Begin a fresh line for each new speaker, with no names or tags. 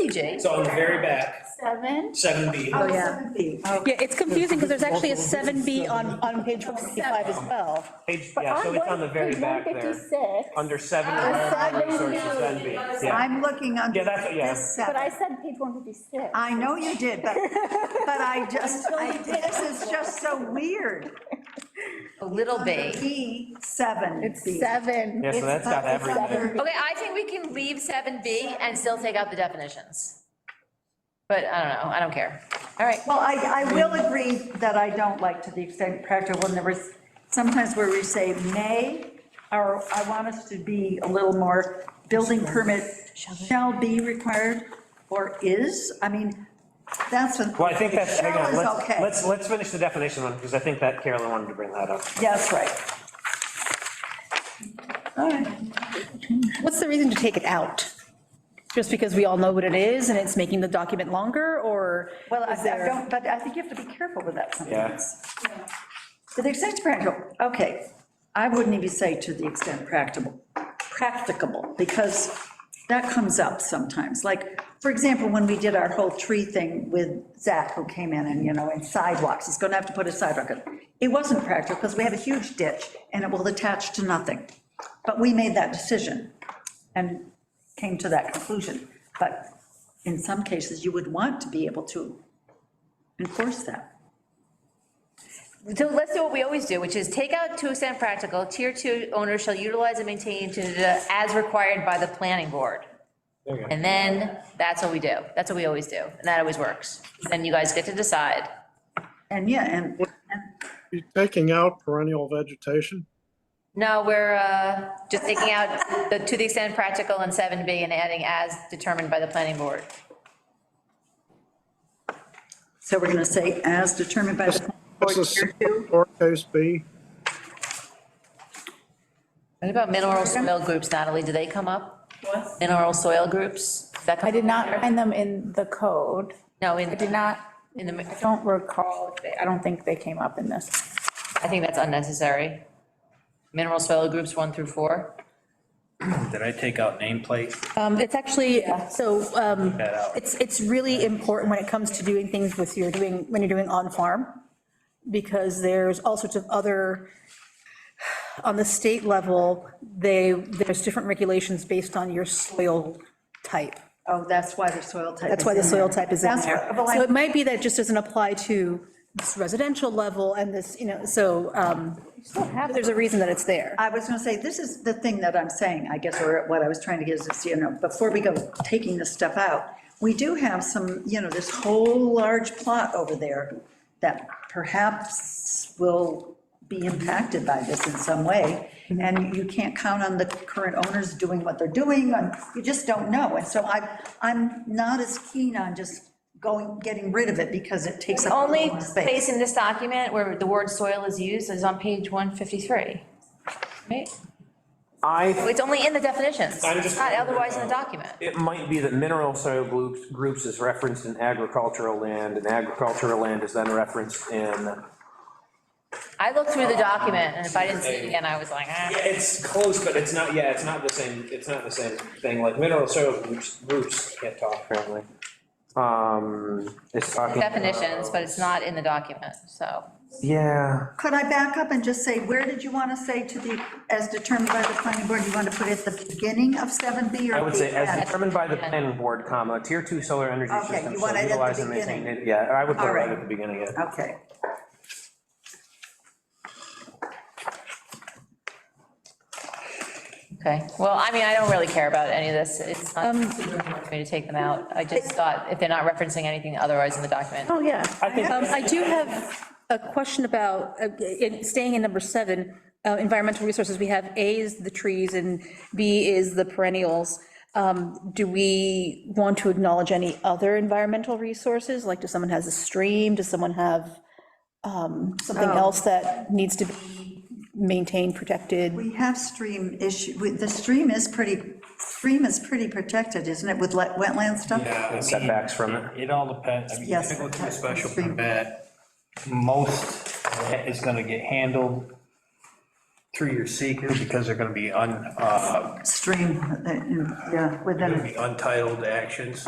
CJ?
So on the very back,
Seven?
seven B.
Uh,
Oh,
yeah.
seven B.
Yeah, it's confusing because there's actually a 7B on, on page 155 as well.
Page, yeah, so it's on the very back there, under Uh, seven,
I
land
don't
resources,
know.
then B, yeah.
I'm looking under
Yeah, that's- yeah.
this
But I
seven.
said page 156.
I know you did, but, but I just, I- this is just so weird.
A little bit.
B, seven. B. E.
Seven.
Yeah, so that's got everything.
Okay, I think we can leave 7B and still take out the definitions. But I don't know, I don't care. All right.
Well, I, I will agree that I don't like to the extent practical, and there was sometimes where we say may, or I want us to be a little more, building permit shall be required, or is, I mean, that's a.
Well, I think that's, hang
Shall
on,
is
let's,
okay.
let's, let's finish the definition one, because I think that Carolyn wanted to bring that up.
Yes, right. All right.
What's the reason to take it out? Just because we all know what it is and it's making the document longer, or
Well, I
is
I
there?
don't, but I think you have to be careful with that sometimes. To the extent practicable, okay, I wouldn't even say to the extent practicable, practicable, because that comes up sometimes. Like, for example, when we did our whole tree thing with Zach, who came in and, you know, and sidewalks, he's gonna have to put a sidewalk in. It wasn't practical, because we have a huge ditch, and it will attach to nothing. But we made that decision and came to that conclusion. But in some cases, you would want to be able to enforce that.
So let's do what we always do, which is take out to extent practical, tier two owners shall utilize and maintain to, as required by the planning board.
There you go.
And then, that's what we do, that's what we always do, and that always works. Then you guys get to decide.
And yeah, and, and
You taking out perennial vegetation?
No, we're uh, just taking out the, to the extent practical and 7B and adding as determined by the planning board.
so we're gonna say as determined by the.
This is lowercase b.
What about mineral soil groups, Natalie, do they come up? What? Mineral soil groups? Does that come
I
up
did not
there?
find them in the code.
No, in,
I did not,
in the,
I don't recall, if they- I don't think they came up in this.
I think that's unnecessary. Mineral soil groups one through four?
Did I take out nameplate?
Um, It's actually, so um,
That out.
it's, it's really important when it comes to doing things with your doing, when you're doing on-farm, because there's all sorts of other, on the state level, they, there's different regulations based on your soil type.
Oh, that's why the soil type.
That's
is
why the
in
soil
there.
type is in
That's
there.
what- well, I-
So it might be that it just doesn't apply to this residential level and this, you know, so um, there's a reason that it's there.
I was gonna say, this is the thing that I'm saying, I guess, or what I was trying to get is, this, you know, before we go taking this stuff out, we do have some, you know, this whole large plot over there that perhaps will be impacted by this in some way.
Mm-hmm.
And you can't count on the current owners doing what they're doing, and you just don't know. And so I, I'm not as keen on just going, getting rid of it because it takes up a lot
Only
more space.
place in this document where the word soil is used is on page 153. Right?
I,
It's only in the definitions,
I'm just-
not otherwise in the document.
it might be that mineral soil groups, groups is referenced in agricultural land, and agricultural land is then referenced in,
I looked through the document, and if I didn't see it again, I was like, ah.
Yeah, it's close, but it's not, yeah, it's not the same, it's not the same thing, like mineral soil groups, groups can't talk.
apparently. Um, it's talking.
definitions, but it's not in the document, so.
Yeah,
Could I back up and just say, where did you want to say to the, as determined by the planning board, you want to put it at the beginning of 7B or?
I would say
the
as
end?
determined by the planning board, comma, tier two solar energy
Okay, you
systems
want it
shall
at the
utilize and maintain.
Uh, beginning.
it. Yeah, I would put it right
Alright.
at the beginning, yeah.
Okay.
Okay, well, I mean, I don't really care about any of this. It's not super important for me to take them out. I just thought if they're not referencing anything otherwise in the document.
Oh, yeah.
I think-
Um, I do have a question about, uh, in- staying in number seven, uh, environmental resources, we have A is the trees and B is the perennials. Um, Do we want to acknowledge any other environmental resources? Like, does someone has a stream? Does someone have um, something
Oh.
else that needs to be maintained, protected?
We have stream issue, we- the stream is pretty, stream is pretty protected, isn't it, with wet- wetland stuff?
And setbacks from it.
It all depends, I mean, you're
Yes.
gonna go through a special permit, most is gonna get handled through your seeker, because they're gonna be un, uh,
Stream, uh, yeah,
gonna
within.
be untitled actions.